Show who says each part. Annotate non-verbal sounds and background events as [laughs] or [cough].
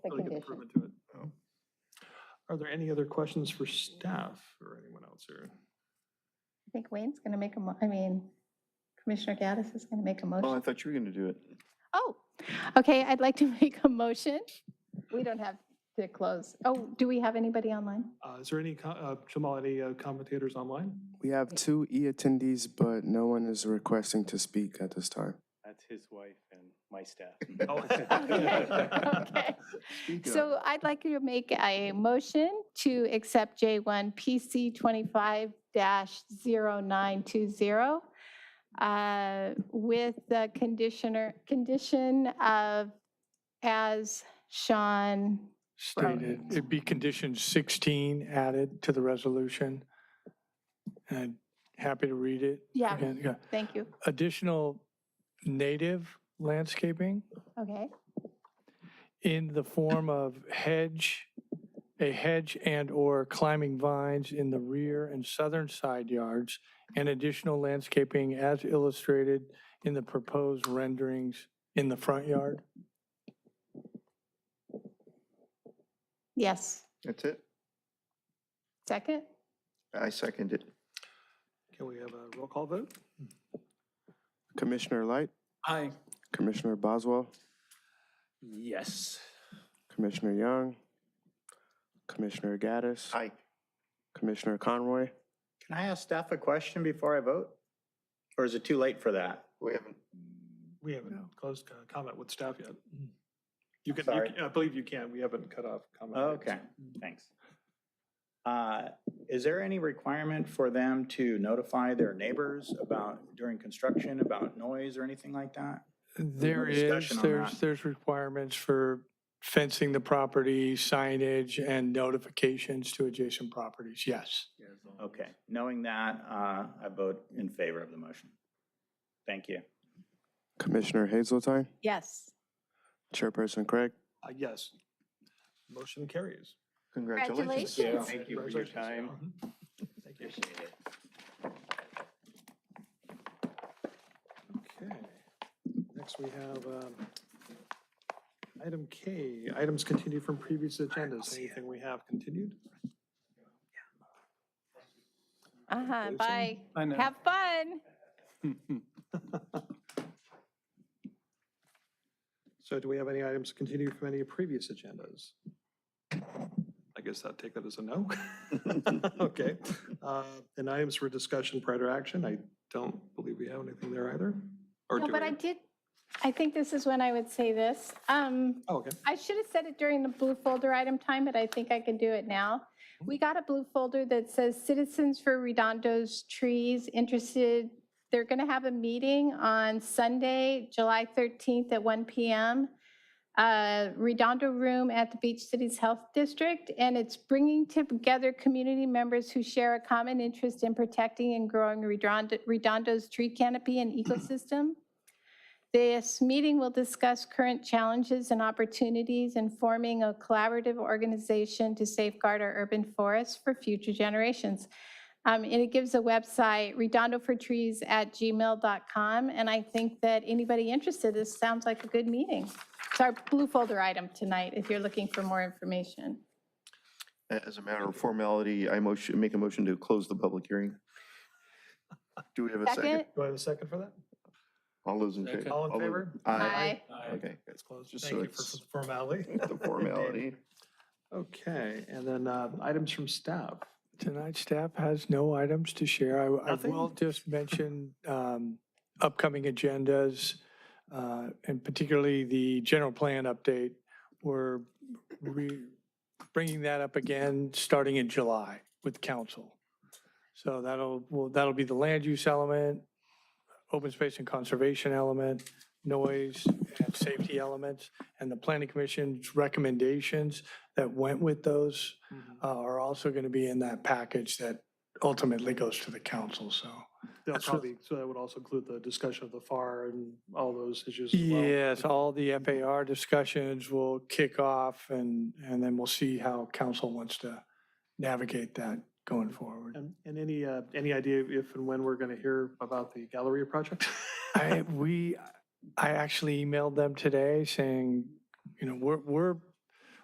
Speaker 1: the
Speaker 2: really good
Speaker 1: condition.
Speaker 2: improvement to it. Oh. Are there any other questions for staff or anyone else here?
Speaker 1: I think Wayne's going to make a, mo- I mean, Commissioner Gaddis is going to make a
Speaker 3: Oh, I
Speaker 1: motion.
Speaker 3: thought you were going to do it.
Speaker 1: Oh, okay, I'd like to [laughs] make a motion. We don't have to close. Oh, do we have anybody online? [laughs]
Speaker 2: Uh, is there any, co- uh, Jamal, any uh, commentators online?
Speaker 4: We have two e-attendees, but no one is requesting to speak at this time.
Speaker 5: That's his wife and my staff.
Speaker 2: Oh.
Speaker 1: Okay, okay.
Speaker 3: Speak up.
Speaker 1: So I'd like to make a motion to accept J1 PC 25-0920 uh, with the conditioner, condition of as Sean,
Speaker 6: stated,
Speaker 4: Stated.
Speaker 6: it'd be condition 16 added to the resolution. And I'm happy to read it.
Speaker 1: yeah,
Speaker 6: Again, yeah.
Speaker 1: thank you.
Speaker 6: Additional native landscaping
Speaker 1: Okay,
Speaker 6: in the form of hedge, a hedge and/or climbing vines in the rear and southern side yards, and additional landscaping as illustrated in the proposed renderings in the front yard.
Speaker 1: yes.
Speaker 3: That's it.
Speaker 1: Second?
Speaker 3: I second it.
Speaker 2: [laughs] Can we have a roll call vote?
Speaker 4: Commissioner Light?
Speaker 5: Aye.
Speaker 4: Commissioner Boswell?
Speaker 5: Yes.
Speaker 4: Commissioner Young? Commissioner Gaddis?
Speaker 3: Aye.
Speaker 4: Commissioner Conroy?
Speaker 7: Can I ask staff a question before I vote? Or is it too late for that?
Speaker 3: We haven't,
Speaker 2: We haven't closed uh, comment with staff yet. You can, you
Speaker 7: Sorry.
Speaker 2: can- I believe you can. We haven't cut off comment.
Speaker 7: Okay, thanks. Uh, Is there any requirement for them to notify their neighbors about, during construction, about noise or anything like that?
Speaker 6: There is,
Speaker 7: discussion on
Speaker 6: there's,
Speaker 7: that.
Speaker 6: there's requirements for fencing the property, signage, and notifications to adjacent properties, yes.
Speaker 7: Okay, knowing that, uh, I vote in favor of the motion. Thank you.
Speaker 4: Commissioner Hazeltine?
Speaker 1: Yes.
Speaker 4: Chairperson Craig?
Speaker 2: Uh, Yes. Motion carries.
Speaker 3: congratulations.
Speaker 1: Congratulations. Yeah.
Speaker 5: Thank you for your
Speaker 2: Congratulations.
Speaker 5: time.
Speaker 2: Mhm. Thank you. Okay. Next, we have um, item K, items continued from previous agendas. Anything we have continued?
Speaker 1: Uh-huh,
Speaker 2: Jason?
Speaker 1: bye. Have fun.
Speaker 2: So do we have any items continued from any previous agendas? I guess I'd take that as a no. [laughs] Okay. Uh, And items for discussion prior to action, I don't believe we have anything there either. Or
Speaker 1: No,
Speaker 2: do
Speaker 1: but
Speaker 2: we?
Speaker 1: I did, I think this is when I would say this. Um,
Speaker 2: Oh, Okay.
Speaker 1: I should have said it during the blue folder item time, but I think I can do it now. We got a blue folder that says Citizens for Redondo's Trees interested. They're going to have a meeting on Sunday, July 13th at 1 PM. uh, Redondo Room at the Beach Cities Health District. And it's bringing together community members who share a common interest in protecting and growing Redondo- Redondo's tree canopy and ecosystem. This meeting will discuss current challenges and opportunities in forming a collaborative organization to safeguard our urban forests for future generations. Um, And it gives a website, redondofortrees at gmail.com. And I think that anybody interested, this sounds like a good meeting. It's our blue folder item tonight, if you're looking for more information.
Speaker 3: As a matter of formality, I motion, make a motion to close the public hearing. Do we have a second?
Speaker 1: Second?
Speaker 2: Do I have a second for that?
Speaker 3: All those in favor?
Speaker 2: All in
Speaker 3: those-
Speaker 2: favor?
Speaker 3: Aye.
Speaker 1: Aye.
Speaker 3: Okay,
Speaker 2: It's closed.
Speaker 3: Just
Speaker 2: Thank
Speaker 3: so
Speaker 2: you for
Speaker 3: it's-
Speaker 2: the formality.
Speaker 3: the formality.
Speaker 2: Okay, and then uh, items from staff.
Speaker 6: Tonight, staff has no items to share. I, I
Speaker 2: Nothing?
Speaker 6: will just mention um, upcoming agendas, uh, and particularly the general plan update. We're re- bringing that up again, starting in July with council. So that'll, well, that'll be the land use element, open space and conservation element, noise and safety elements, and the planning commission's recommendations that went with those
Speaker 2: Mm-hmm.
Speaker 6: uh, are also going to be in that package that ultimately goes to the council, so.
Speaker 2: They'll
Speaker 6: That's what-
Speaker 2: probably, so that would also include the discussion of the FAR and all those issues as well.
Speaker 6: Yes, all the FAR discussions will kick off and, and then we'll see how council wants to navigate that going forward.
Speaker 2: And and any, uh, any idea if and when we're going to hear about the Galleria project? [laughs]
Speaker 6: I, we, I actually emailed them today saying, you know, we're, we're